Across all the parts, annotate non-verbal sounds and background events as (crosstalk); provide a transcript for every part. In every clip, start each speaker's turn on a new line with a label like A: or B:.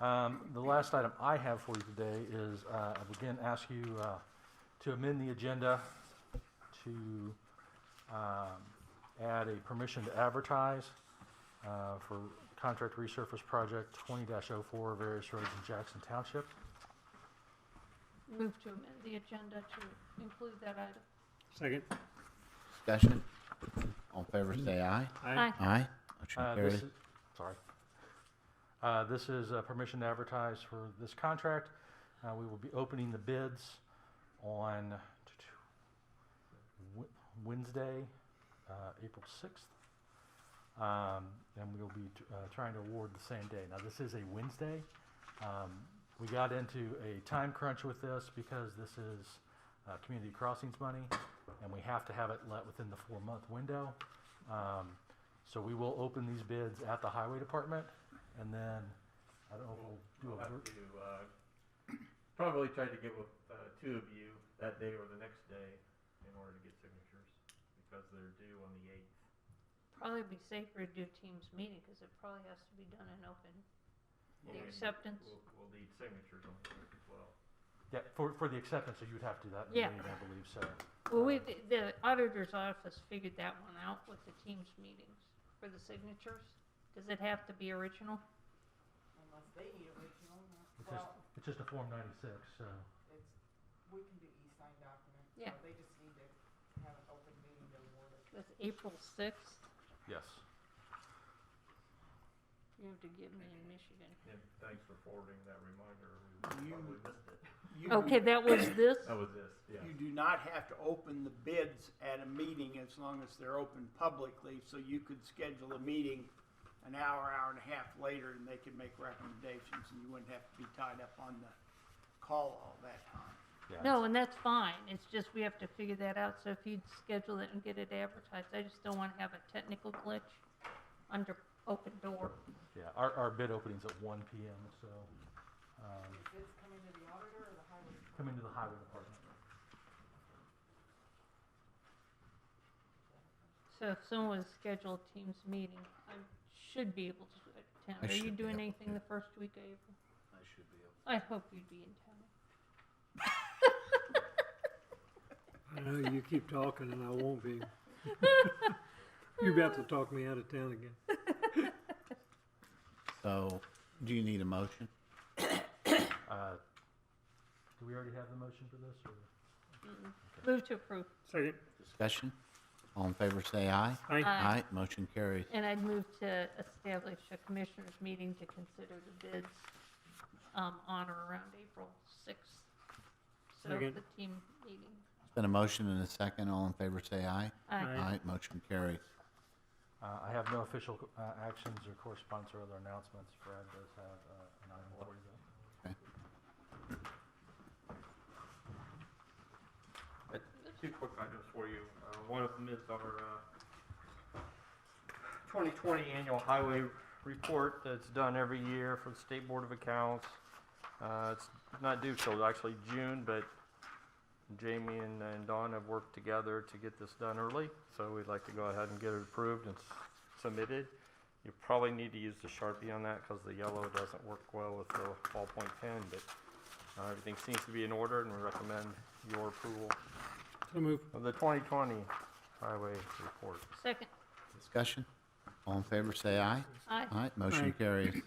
A: Um, The last item I have for you today is, uh, I would again ask you uh, to amend the agenda to um, add a permission to advertise uh, for contract resurface project 20-04, various roads in Jackson Township.
B: Move to amend the agenda to include that item.
C: Second.
D: Discussion? All in favor, say aye.
C: Aye.
D: Aye.
A: Uh,
D: Motion
A: this
D: carries.
A: is- Sorry. Uh, This is uh, permission to advertise for this contract. Uh, We will be opening the bids on Wed- Wednesday, uh, April 6th. Um, And we will be uh, trying to award the same day. Now, this is a Wednesday. Um, We got into a time crunch with this because this is uh, community crossings money, and we have to have it let within the four-month window. Um, So we will open these bids at the highway department, and then, I don't know if we'll do
E: We'll
A: a...
E: have
A: vir-
E: to, uh, probably try to get with, uh, two of you that day or the next day in order to get signatures, because they're due on the eighth.
B: Probably be safer to do Teams meeting because it probably has to be done in open. The acceptance.
E: We'll, we'll need signatures on the eighth as well.
A: Yeah, for, for the acceptance, so you would have to do that in the
B: Yeah.
A: meeting, I believe, so.
B: Well, we, the- the auditor's office figured that one out with the Teams meetings for the signatures. Does it have to be original?
F: Unless they need original,
A: It's just,
F: well,
A: it's just a Form 96, so,
F: it's, we can do e-sign documents. so
B: Yeah.
F: They just need to have an open meeting to award it.
B: With April 6th,
A: yes.
B: you have to give me in Michigan.
E: And thanks for forwarding that reminder, we
G: You-
E: probably missed it.
G: You do-
B: Okay, that was this?
E: That was this, yeah.
G: You do not have to open the bids at a meeting as long as they're open publicly, so you could schedule a meeting an hour, hour and a half later, and they could make recommendations, and you wouldn't have to be tied up on the call all that time.
A: Yeah,
B: No, and that's fine. It's just we have to figure that out. So if you'd schedule it and get it advertised, I just don't want to have a technical glitch under open door.
A: Yeah, our, our bid opening's at 1 PM, so, um,
F: Is this coming to the auditor or the highway? department?
A: come into the highway department.
B: So if someone was scheduled a Teams meeting, I should be able to
D: I
B: attend. Are you
D: should be
B: doing
D: able
B: anything
D: to.
B: the first week of April?
D: I should be
B: I hope you'd be in town.
H: I know you keep talking and I won't be. (laughs) You're about to talk me out of town again.
D: So, do you need a motion?
A: Uh, Do we already have the motion for this, or?
B: Move to approve.
C: Second.
D: Discussion? All in favor, say aye.
C: Aye.
B: Aye.
D: Motion carries.
B: Uh, And I'd move to establish a commissioners meeting to consider the bids um, on or around April 6th. So
C: Second.
B: the team meeting.
D: It's been a motion and a second. All in favor, say aye.
B: Aye.
D: Aye. Motion carries.
A: Uh, I have no official uh, actions or correspondence or other announcements. Brad does have uh, an item for you.
E: Two quick items for you. Uh, One of them is our uh, 2020 annual highway report that's done every year for the State Board of Accounts. Uh, It's not due till actually June, but Jamie and and Dawn have worked together to get this done early, so we'd like to go ahead and get it approved and s- submitted. You probably need to use the Sharpie on that because the yellow doesn't work well with the ballpoint pen, but uh, everything seems to be in order, and we recommend your approval
C: So move.
E: of the 2020 highway report.
B: Second.
D: Discussion? All in favor, say aye.
B: Aye.
D: Aye. Motion
C: Aye.
D: carries.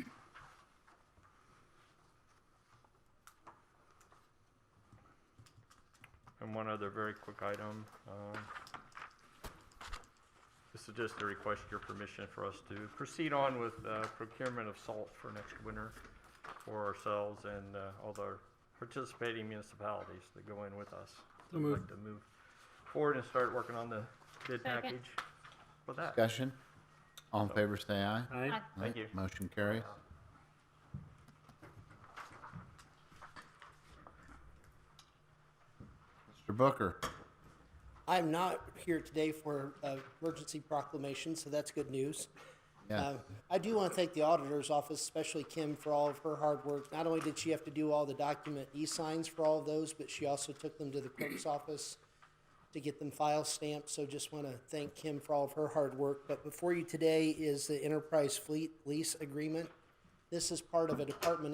E: And one other very quick item. um, This is just to request your permission for us to proceed on with uh, procurement of salt for next winter for ourselves and uh, all the participating municipalities that go in with us.
C: So moved.
E: Like To move forward and start working on the bid
B: Second.
E: package for that.
D: Discussion? All in favor, say aye.
C: Aye.
E: Thank you.
D: Motion carries. Mr. Booker?
I: I'm not here today for uh, emergency proclamation, so that's good news.
D: Yes.
I: Uh, I do want to thank the auditor's office, especially Kim, for all of her hard work. Not only did she have to do all the document e-signs for all of those, but she also took them to the clerk's office to get them file stamped. So just want to thank Kim for all of her hard work. But before you today is the Enterprise Fleet Lease Agreement. This is part of a Department